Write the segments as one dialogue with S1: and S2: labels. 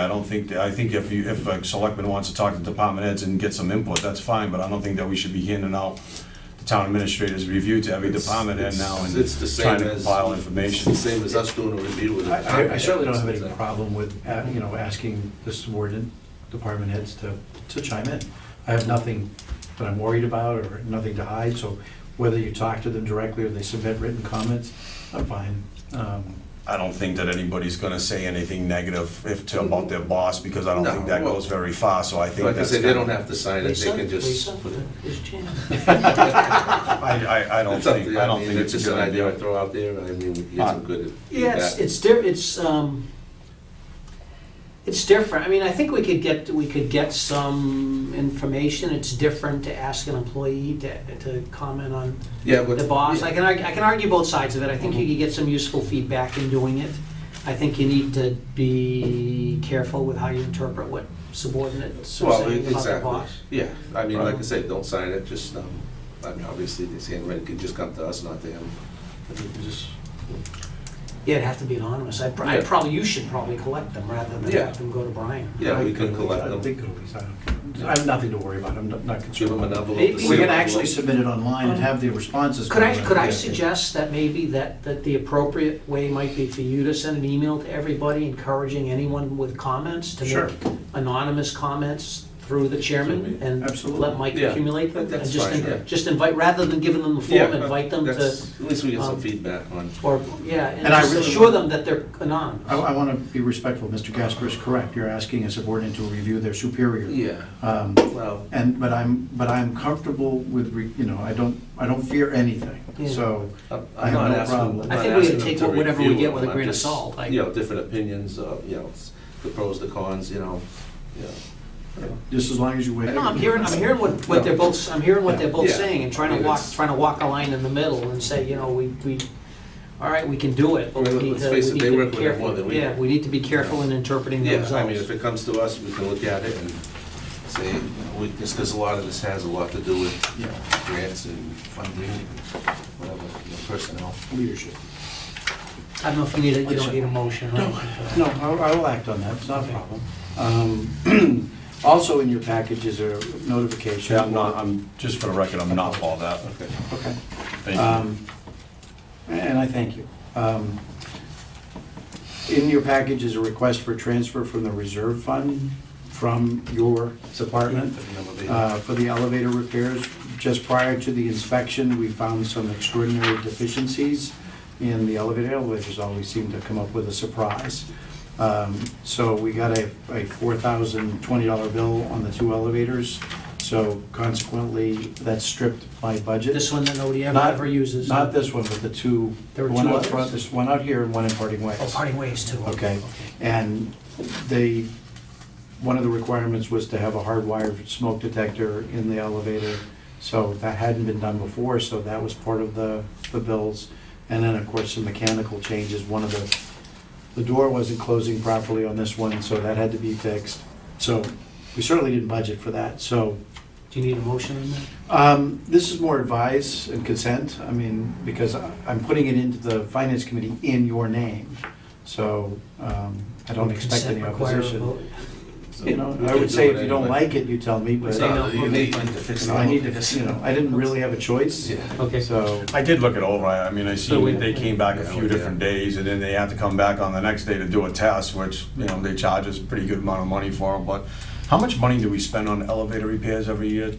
S1: I don't think, I think if you, if a selectman wants to talk to department heads and get some input, that's fine, but I don't think that we should be handing out the town administrator's review to every
S2: It's-
S1: department head now and
S2: it's the same
S1: trying to
S2: as-
S1: compile
S2: It's
S1: information.
S2: the same as us doing a review with. the
S3: I I certainly don't have any problem with, uh, you know, asking the subordinate department heads to, to chime in. I have nothing that I'm worried about or nothing to hide, so whether you talk to them directly or they submit written comments, I'm fine. Um,
S1: I don't think that anybody's gonna say anything negative if, to- about their boss, because I don't
S2: No,
S1: think that
S2: well-
S1: goes very far, so I think
S2: Like I
S1: that's.
S2: said, they don't
S1: kinda-
S2: have to sign it, they
S4: Lisa,
S2: can just.
S4: Lisa, it's Jan.
S1: I, I, I don't
S2: It's up to
S1: think,
S2: you.
S1: I don't
S2: mean,
S1: think it's a good
S2: just an idea I
S1: idea.
S2: throw out there, I mean, we can get some good.
S4: Yeah, it's, it's di, it's, um, it's different. I mean, I think we could get, we could get some information. It's different to ask an employee to, to comment on
S2: Yeah, Mm-hmm. but.
S4: the boss. I can, arg- I can argue both sides of it. I think you could get some useful feedback in doing it. I think you need to be careful with how you interpret what subordinates are
S2: Well,
S4: saying about the
S2: exactly,
S4: boss.
S2: yeah, I mean,
S1: Right.
S2: like I said, don't sign it, just, um, I mean, obviously, this handwriting could just come to us, not to him. I think we just-
S4: Yeah, it'd have to be anonymous. I, pr- I
S2: Yeah.
S4: probably, you should probably collect them rather than
S2: Yeah.
S4: have them go to Brian.
S2: Yeah, we can collect
S3: I
S2: them,
S3: think it'll be fine. I have nothing to worry about, I'm not- not
S2: give
S3: concerned.
S2: them an
S3: about it.
S2: envelope. to
S4: Maybe-
S3: We're
S2: seal
S3: gonna
S2: it.
S3: actually submit it online and have the responses.
S4: Could I,
S3: come in.
S4: could I
S3: Yeah.
S4: suggest that maybe that, that the appropriate way might be for you to send an email to everybody encouraging anyone with comments to
S3: Sure.
S4: make anonymous comments through the chairman and
S3: Absolutely.
S4: let Mike
S2: Yeah.
S4: accumulate them?
S2: That's
S4: and just
S2: fine,
S4: in-
S2: yeah.
S4: Just invite, rather than giving them the form,
S2: Yeah,
S4: invite them to,
S2: that's- At least we get some
S4: um,
S2: feedback on,
S4: or, yeah, and
S3: And I
S4: just
S3: really-
S4: assure them that they're
S3: I,
S4: anonymous.
S3: I wanna be respectful, Mr. Gasper is correct, you're asking a subordinate to review their superior.
S2: yeah,
S3: Um,
S2: well,
S3: And, but I'm, but I'm comfortable with, re- you know, I don't, I don't fear anything,
S4: Yeah.
S3: so.
S2: I'm I'm
S3: I have
S2: not
S3: no
S2: asking, I'm
S3: problem.
S2: not
S4: I think we
S2: asking
S4: gotta take
S2: them to
S4: whatever we
S2: review
S4: get
S2: it.
S4: with a
S2: I'm
S4: grain of
S2: just,
S4: salt, like-
S2: You know, different opinions, uh, you know, it's the pros, the cons, you know, you know.
S3: Just as long as you wait.
S4: No, I'm hearing, I'm hearing what, what they're both, I'm hearing what they're both
S2: Yeah.
S4: saying and trying to
S2: Yeah,
S4: walk,
S2: it's-
S4: trying to walk a line in the middle and say, you know, we, we, all right, we can do it, but
S2: I
S4: we
S2: mean,
S4: need
S2: let's
S4: to, we
S2: face it,
S4: need
S2: they
S4: to
S2: work
S4: be
S2: with it more than
S4: careful.
S2: we
S4: Yeah,
S2: do.
S4: we need to be careful in interpreting the
S2: Yeah, I mean, if
S4: results.
S2: it comes to us, we can look at it and say, you know, we, just because a lot of this has a lot to do with, you know, grants and funding and whatever, you know, personnel.
S3: Leadership.
S4: I don't know if you need, a- you don't need a motion, right?
S3: No, I I will act on that, it's not a problem. Um, Also in your package is a notification.
S1: Yeah, I'm not, I'm, just for the record, I'm not for that.
S2: Okay.
S3: Okay.
S1: Thank you.
S3: Um, And I thank you. Um, In your package is a request for transfer from the reserve fund from your department uh, for the elevator repairs. Just prior to the inspection, we found some extraordinary deficiencies in the elevator. Elevators always seem to come up with a surprise. Um, So we got a a $4,020 bill on the two elevators, so consequently, that stripped my budget.
S4: This one that nobody ever,
S3: Not-
S4: ever uses. uh,
S3: Not this one, but the two,
S4: There were
S3: one
S4: two
S3: out
S4: others.
S3: front, there's one out here and one in Parting Ways.
S4: Oh, parting ways too.
S3: Okay, and they, one of the requirements was to have a hardwired smoke detector in the elevator. So that hadn't been done before, so that was part of the, the bills. And then, of course, some mechanical changes, one of the, the door wasn't closing properly on this one, so that had to be fixed. So we certainly didn't budget for that, so
S4: Do you need a motion on that?
S3: um, This is more advice and consent, I mean, because I- I'm putting it into the finance committee in your name, so um, I don't expect
S4: Consent
S3: any
S4: require a
S3: opposition.
S4: vote.
S3: You know, I would say if you don't like it, you tell me, but
S2: It's
S3: you
S2: not,
S3: know,
S2: that you need to fix it.
S3: I need to, you know, I didn't really have a choice,
S2: Yeah.
S4: Okay.
S3: so.
S1: I did look it over, I I mean, I
S4: So we-
S1: see they came back a
S2: Yeah,
S1: few
S2: we did.
S1: different days, and then they had to come back on the next day to do a test, which, you know, they charge us a pretty good amount of money for, but how much money do we spend on elevator repairs every year?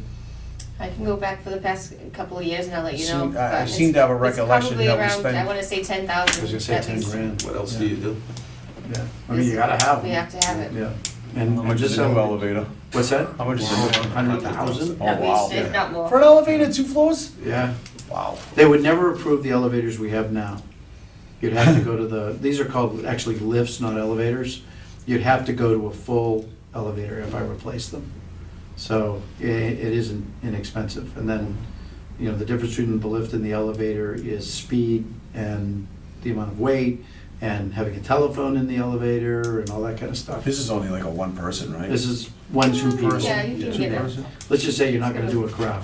S5: I can go back for the past couple of years and I'll let you know.
S1: Seem- I- I
S5: but it's-
S1: seem to have a
S5: it's
S1: recollection
S5: probably
S1: that we
S5: around,
S1: spend-
S5: I wanna say ten
S3: I was
S5: thousand
S3: gonna say
S5: at
S3: 10
S5: least.
S3: grand.
S2: What else do you do?
S3: Yeah, I mean, you gotta have
S5: We
S3: them.
S5: have to have it.
S3: Yeah, and
S1: How
S3: and
S1: much is
S3: just,
S1: a new
S3: a-
S1: elevator?
S3: what's that?
S1: How much is a new one?
S3: Hundred thousand?
S1: Oh,
S5: At
S1: wow.
S5: least, if not more.
S1: For an elevator, two floors?
S3: Yeah.
S1: Wow.
S3: They would never approve the elevators we have now. You'd have to go to the, these are called actually lifts, not elevators. You'd have to go to a full elevator if I replace them. So i- it isn't inexpensive. And then, you know, the difference between the lift and the elevator is speed and the amount of weight and having a telephone in the elevator and all that kind of stuff.
S1: This is only like a one person, right?
S3: This is one, two
S5: Yeah,
S3: person.
S5: you can
S3: two
S5: get it.
S3: person. Let's just say you're not gonna do a crowd,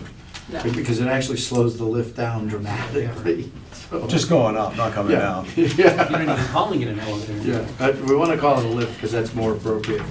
S5: No.
S3: because it actually slows the lift down dramatically, so.
S1: Just going up, not coming
S3: Yeah.
S1: down.
S4: You're not even calling it an elevator.
S3: Yeah, but we want to call it a lift because that's more appropriate.